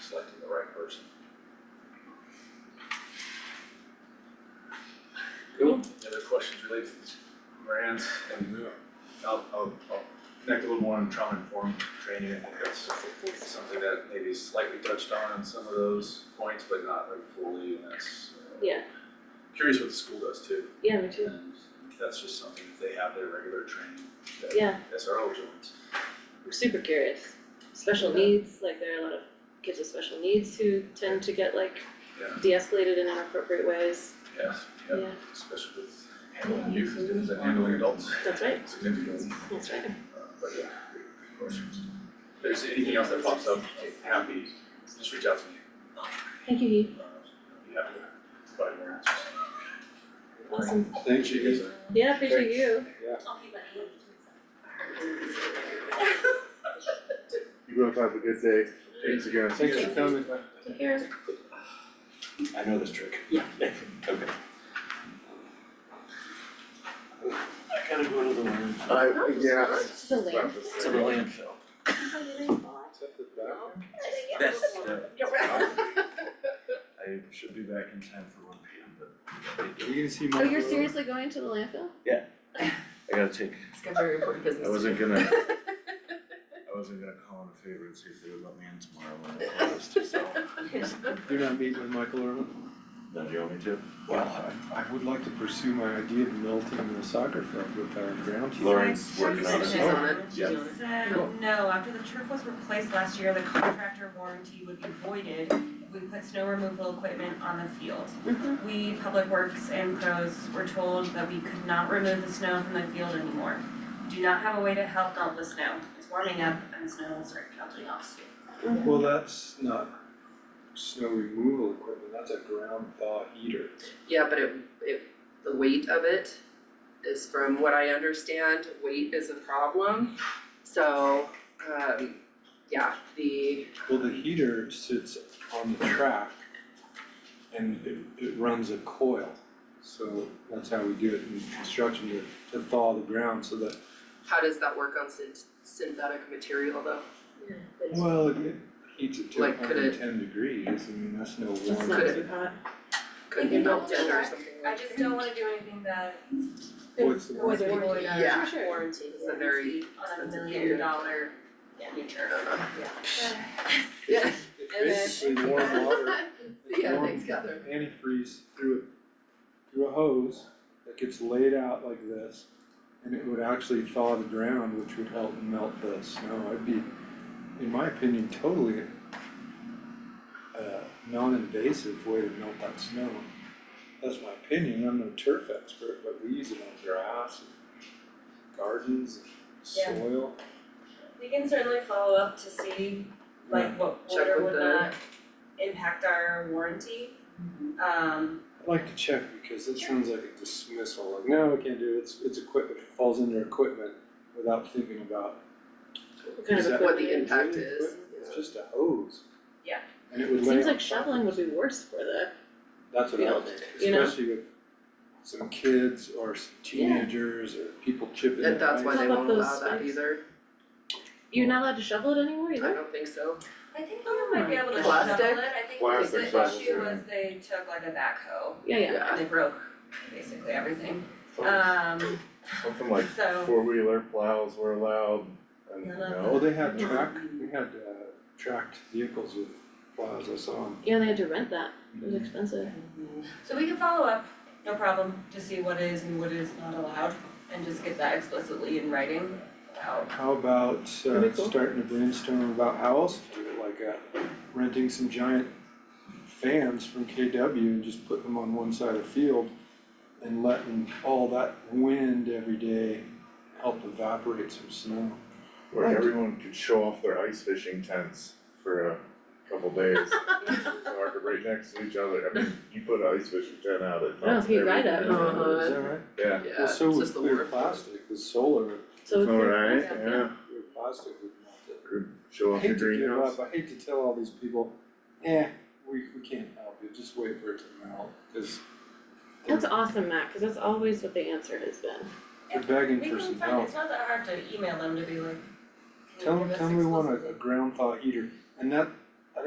selecting the right person. Cool, any other questions related to this grant and the, I'll, I'll, I'll connect a little more on trauma-informed training, I think that's something that maybe is slightly touched on in some of those points, but not like fully, and that's uh, Yeah, curious what the school does too. yeah, me too, And that's just something that they have their regular training that yeah, SRO joins. I'm super curious. Special needs, like there are a lot of kids with special needs who tend to get like Yeah. de-escalated in inappropriate ways, Yeah, yeah, yeah, especially with handling youth as different than handling adults. that's right, Significantly. that's right. Uh, But yeah, good questions. If there's anything else that pops up, I'm happy, just reach out to me. Thank you, Heath, Uh, I'd be happy to provide more answers. awesome, Thank you guys. yeah, appreciate you. You both have a good day. Thanks again. Thanks for coming. Take care. I know this trick. Yeah. Okay. I gotta go to the landfill. I, yeah. I- The land. To the landfill. That's the. I should be back in time for one P M, but. You gonna see Oh, Mark? you're seriously going to the landfill? I gotta take, It's got very important business. I wasn't gonna, I wasn't gonna call in a favor and see if they would let me in tomorrow when it closed, so. You're not meeting with Michael Irvin? Now, do you want me to? Well, I, I would like to pursue my idea of melting the soccer field with our ground. Lauren's working on She's it. on it, she's Yeah. on it. Said, no, after the turf was replaced last year, the contractor warranty would be voided. We put snow removal equipment on the field. Mm-hmm. Mhm. We, Public Works and pros were told that we could not remove the snow from the field anymore. Do not have a way to help melt the snow. It's warming up and the snow will start melting off soon. Well, that's not snow removal equipment, that's a ground thaw heater. Yeah, but it, it, the weight of it is from what I understand, weight is a problem. So, um, yeah, the, Well, the heater sits on the track and it, it runs a coil. So that's how we do it in construction, to, to thaw the ground so that, how does that work on syn- synthetic material though? Yeah, that's- well, it it heats it to Like, could hundred and it- ten degrees, I mean, that's no warranty. That's not too hot. Could be melted or something I like that? just don't wanna do anything that What's the would warranty? void Yeah. our warranty It's a on very a expensive million period. dollar future. Yeah, It's basically warm water, it's Yeah, warm thanks, Catherine. antifreeze through a, through a hose that gets laid out like this. And it would actually thaw the ground, which would help melt the snow, it'd be, in my opinion, totally uh, non-invasive way to melt that snow. That's my opinion, I'm no turf expert, but we use it on grass and gardens and Yeah. soil. We can certainly follow up to see like what Check order with would the- not impact our warranty. Um, I'd like to check because it sounds like a dismissal, like, no, we can't do it, it's, it's equipment, it falls under equipment without thinking about. What kind is of that what equipment the it is? impact really is. equipment? It's just a hose. Yeah. And it would It lay seems on like shoveling would be worse for the, top. That's what I field, was, you know? especially with some kids or some teenagers or people chipping And their that's why ice. they How won't about allow those that spikes? either, you're not allowed to shovel it anymore I either? don't think so. I think we might be able to shovel it, Plastic? I think Plastic the shovels, issue yeah. was they took like a backhoe Yeah, yeah, Yeah. and they broke basically everything. Um, Something like so, Oh. four wheeler plows were allowed and None of Well, no, Oh, they had track, we had uh tracked vehicles with plows, I saw 'em. yeah, they had to rent that, it was expensive. so we can follow up, no problem, to see what is and what is not allowed and just get that explicitly in writing about. How about That'd uh be cool. starting to brainstorm about how else to do it, like uh renting some giant fans from KW and just putting them on one side of the field and letting all that wind every day help evaporate some snow. where everyone could show off their ice fishing tents for a couple days. So are right next to each other, I mean, you put an ice fishing tent out at Oh, if you ride up. Uh-huh. Is that right? Yeah. Yeah, Well, it's so just with the clear word. plastic, with solar, So it's Alright, yeah. yeah, clear plastic would melt it. show I off your hate to give greenhouse. up, I hate to tell all these people, eh, we we can't help you, just wait for it to melt, cause That's awesome, Matt, cause that's always what the answer has been. they're begging We for can some help. find, it's not that hard to email them to be like. Tell "Give them, us tell them we want explicit." a, a ground thaw heater, and that,